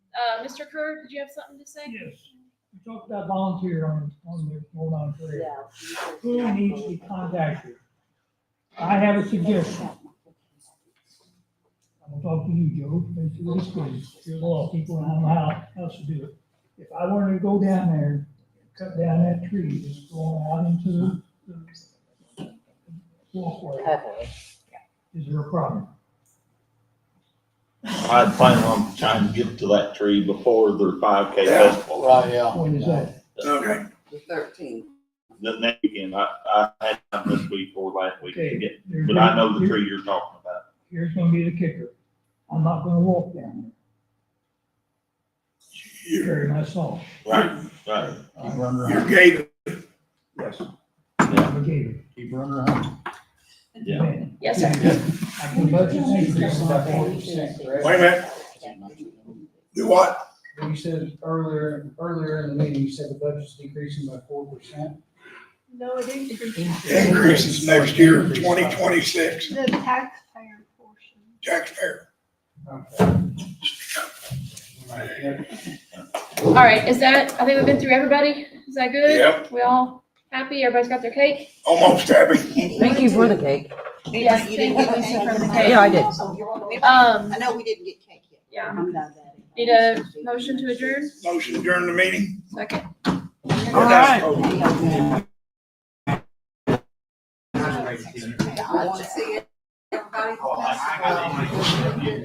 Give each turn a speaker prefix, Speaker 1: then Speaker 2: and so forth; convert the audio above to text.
Speaker 1: Uh, Mr. Kerr, did you have something to say?
Speaker 2: Yes, we talked about volunteer on, on the hold on for it. Who needs to be contacted? I have a suggestion. I'm gonna talk to you, Joe, basically this way, you're the law people and I'm how else to do it. If I wanted to go down there, cut down that tree, just going out into the- the walkway,
Speaker 3: Okay.
Speaker 2: is there a problem?
Speaker 4: I'd plan on trying to get to that tree before their five K festival.
Speaker 5: Right, yeah.
Speaker 2: What is that?
Speaker 6: Okay.
Speaker 3: The thirteenth.
Speaker 4: The next weekend, I, I had time this week or last week to get,
Speaker 2: Okay, there's-
Speaker 4: but I know the tree you're talking about.
Speaker 2: Here's gonna be the kicker. I'm not gonna walk down there. Carry my saw.
Speaker 4: Right, right.
Speaker 5: Keep running
Speaker 6: You
Speaker 5: around,
Speaker 6: gave it.
Speaker 2: Yes.
Speaker 4: Yeah.
Speaker 2: I gave it.
Speaker 5: keep running around.
Speaker 4: Yeah.
Speaker 1: Yes, sir.
Speaker 2: I can budget an increase of about forty percent, correct?
Speaker 6: Wait a minute, do what?
Speaker 7: You said earlier, earlier in the meeting, you said the budget's decreasing by four percent.
Speaker 8: No, it increased.
Speaker 6: Increases next year, twenty twenty-six,
Speaker 8: The taxpayer portion.
Speaker 6: taxpayer.
Speaker 1: All right, is that, I think we've been through everybody. Is that good?
Speaker 6: Yep.
Speaker 1: We all happy? Everybody's got their cake?
Speaker 6: Almost happy.
Speaker 3: Thank you for the cake.
Speaker 1: Yes,
Speaker 9: You didn't get anything from the cake?
Speaker 3: Yeah, I did.
Speaker 1: Um,
Speaker 9: I know we didn't get cake yet.
Speaker 1: yeah. Need a motion to adjourn?
Speaker 6: Motion during the meeting.
Speaker 1: Second.
Speaker 3: All right.
Speaker 9: I want to see everybody.